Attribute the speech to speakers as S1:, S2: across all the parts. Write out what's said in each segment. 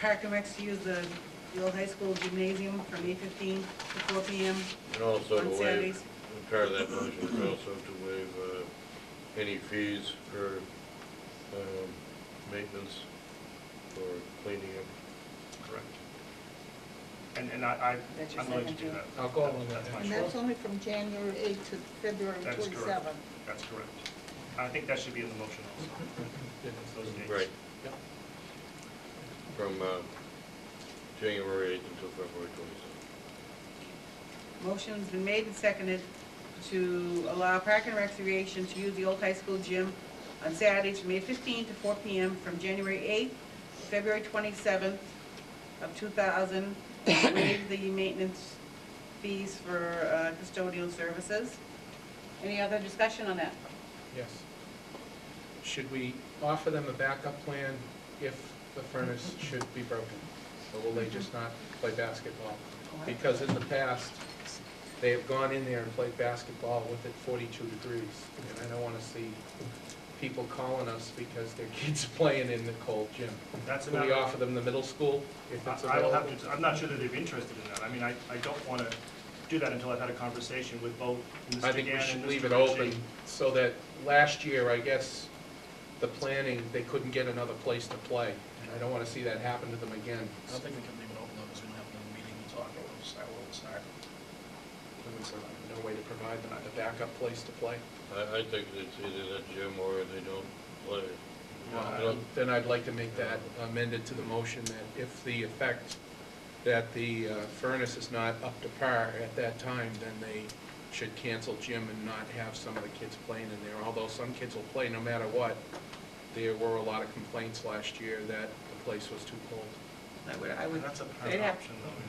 S1: Park and Recs to use the, the old high school gymnasium from eight fifteen to four P M.
S2: And also to
S1: On Saturdays.
S2: waive, part of that motion is also to waive uh, any fees for um, maintenance or cleaning up.
S3: Correct. And, and I,
S1: That's
S3: I,
S1: your
S3: I'm willing to
S1: second
S3: do
S1: thing.
S3: that.
S4: I'll go
S3: That-
S4: along with
S3: that's
S4: that.
S3: my
S5: And
S3: choice.
S5: that's only from January 8th to February
S3: That is
S5: 27th.
S3: correct. That's correct. I think that should be in the motion also, those dates.
S2: Right,
S4: Yep.
S2: from um, January eighth until February twenty-seventh.
S1: Motion's been made and seconded to allow Park and Recreation to use the old high school gym on Saturdays from eight fifteen to four P M from January eighth to February twenty-seventh of two thousand. Waive the maintenance fees for uh, custodial services. Any other discussion on that?
S4: Yes. Should we offer them a backup plan if the furnace should be broken? Or will they just not play basketball? Because in the past, they have gone in there and played basketball with it 42 degrees. And I don't want to see people calling us because their kids are playing in the cold gym.
S3: That's
S4: Could we
S3: another,
S4: offer them the middle school if it's
S3: I- I will
S4: available?
S3: have to, I'm not sure that they're interested in that. I mean, I, I don't want to do that until I've had a conversation with both Mr.
S4: I
S3: Gann
S4: think we
S3: and
S4: should
S3: Mr.
S4: leave it
S3: Ritchie.
S4: open so that last year, I guess, the planning, they couldn't get another place to play. And I don't want to see that happen to them again.
S6: I don't think we can leave it open though, because we don't have another meeting to talk about, we'll start, we'll start.
S4: There's uh, no way to provide them a backup place to play.
S2: I, I think it's either that gym or they don't play.
S3: Yeah.
S4: Um, Then I'd like to make that amended to the motion that if the effect that the uh, furnace is not up to par at that time, then they should cancel gym and not have some of the kids playing in there. Although some kids will play no matter what. There were a lot of complaints last year that the place was too cold.
S1: I would, I would,
S3: That's a
S1: they'd
S3: parent
S1: have-
S3: option though.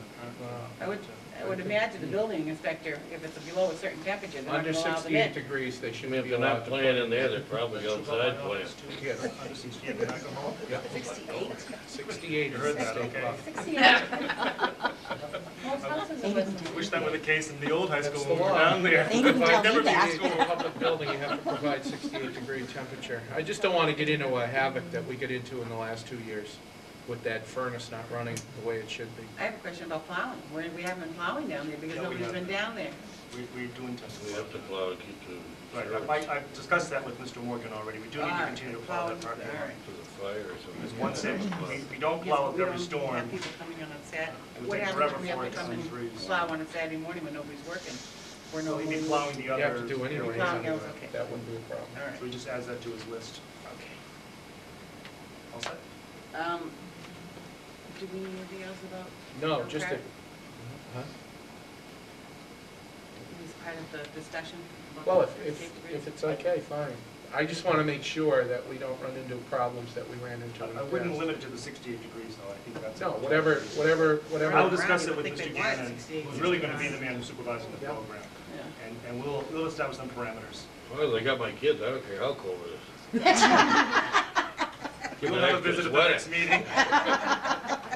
S1: I would, I would imagine the building inspector, if it's below a certain temperature, they're not
S4: Under
S1: gonna allow them in.
S4: 68 degrees, they
S2: I mean,
S4: shouldn't
S2: if
S4: be
S2: they're not
S4: allowed to play.
S2: playing in there, they're probably outside playing.
S4: Yeah.
S3: Yeah, they're not gonna hold it.
S4: Yeah,
S5: 68?
S4: 68
S3: You
S4: is
S3: heard
S4: the
S3: that,
S4: state
S3: okay.
S4: law.
S3: Wish that were the case in the old high
S4: That's
S3: school when
S4: the
S3: we were
S4: law.
S3: down there.
S5: They didn't
S3: I've
S5: tell
S3: never
S5: me
S3: been
S5: that.
S3: to
S4: If you go to a public building, you have to provide 68 degree temperature. I just don't want to get into a havoc that we get into in the last two years with that furnace not running the way it should be.
S1: I have a question about plowing. We, we haven't been plowing down there because
S3: No, we
S1: nobody's been down
S3: haven't.
S1: there.
S3: We, we do intend to.
S2: We have to plow and keep the.
S3: Right,
S2: reserves
S3: I- I, I've discussed that with Mr. Morgan already, we do need to
S1: Alright,
S3: continue to plow that
S1: plowing,
S3: part.
S1: alright.
S2: To the fire or something.
S3: There's one thing, we, we
S1: Yes,
S3: don't plow
S1: but
S3: up
S1: we
S3: every
S1: don't
S3: storm.
S1: Have people coming in on Saturday.
S3: It would
S1: What
S3: take
S1: happens
S3: forever
S1: if we have
S3: for
S1: to
S3: it to
S1: come
S3: come through,
S1: and
S3: so-
S1: plow on a Saturday morning when nobody's working? Or
S3: So
S1: nobody.
S3: we'd be plowing the
S4: You
S3: other.
S4: have to do anyways
S1: Plowing
S4: anyway.
S1: is okay.
S4: That wouldn't be a problem.
S1: All
S3: So he
S1: right,
S3: just adds that to his list. All set?
S1: okay. Um, do we need anything else about?
S4: No, just a,
S1: Okay.
S4: Huh?
S1: Is part of the discussion? about
S4: well,
S1: the
S4: if, if,
S1: 68
S4: if it's okay, fine. I just want to make sure that we don't run into problems that we ran into in
S3: I-
S4: the
S3: I wouldn't
S4: past.
S3: limit it to the 68 degrees though, I think that's.
S4: No, whatever, whatever,
S3: I'll
S4: whatever,
S3: discuss it with
S1: I
S3: Mr.
S1: think they want
S3: Gannon,
S1: 68
S3: who's really gonna be the man who's supervising the
S4: Yeah.
S3: program.
S1: Yeah.
S3: And, and we'll, we'll establish some parameters.
S2: Well, they got my kids, I don't care how cold it is. Give
S3: You'll
S2: them an
S3: have a
S2: extra
S3: visit at the
S2: sweater.
S3: next meeting.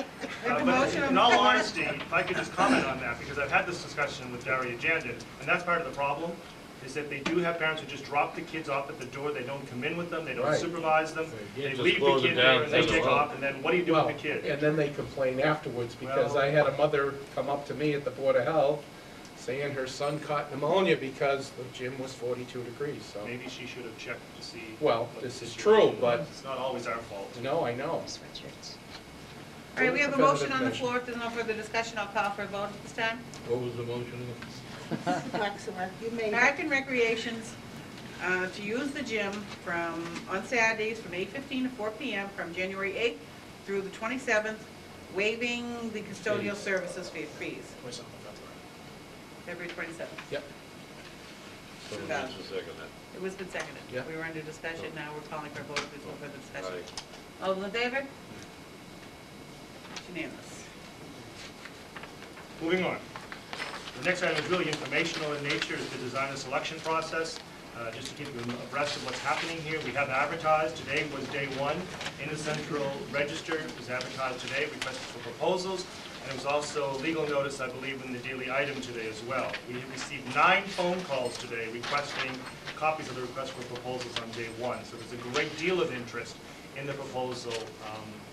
S3: Uh,
S1: a
S3: but
S1: motion on
S3: In
S1: the
S3: all
S1: floor.
S3: honesty, if I could just comment on that, because I've had this discussion with Daria Jandon, and that's part of the problem, is that they do have parents who just drop the kids off at the door, they don't come in with them, they don't
S4: Right.
S3: supervise them,
S2: Yeah,
S3: they
S2: just
S3: leave the
S2: close it
S3: kid
S2: down,
S3: there and they
S2: send them
S3: take
S2: home.
S3: off, and then what do you do
S4: Well,
S3: with the kid?
S4: and then they complain afterwards, because
S3: Well-
S4: I had a mother come up to me at the Board of Health saying her son caught pneumonia because the gym was forty-two degrees, so,
S3: Maybe she should have checked to see.
S4: Well,
S3: what the
S4: this is
S3: situation
S4: true, but-
S3: was. It's not always our fault.
S4: no, I know.
S1: All right, we have a
S4: Further
S1: motion on the
S4: discussion.
S1: floor. If there's no further discussion, I'll call for a vote at this time.
S2: What was the motion?
S5: Flexible, you made it.
S1: Park and Recreations, uh, to use the gym from, on Saturdays from 8:15 to 4 PM from January 8th through the 27th, waiving the custodial services fee- fees,
S6: Voice on the February.
S1: February 27th.
S4: Yep,
S2: Someone needs to second that.
S1: It was been seconded.
S4: Yeah.
S1: We were under discussion, now we're calling for a vote, there's no further discussion.
S2: Aye.
S1: All those in favor? It's Unanimous.
S3: Moving on. The next item is really informational in nature, is the design and selection process. Uh, Just to keep you abreast of what's happening here, we have advertised, today was day one, in the central register, it was advertised today, requested for proposals, and it was also legal notice, I believe, in the daily item today as well. We have received nine phone calls today requesting copies of the request for proposals on day one, so there's a great deal of interest in the proposal um,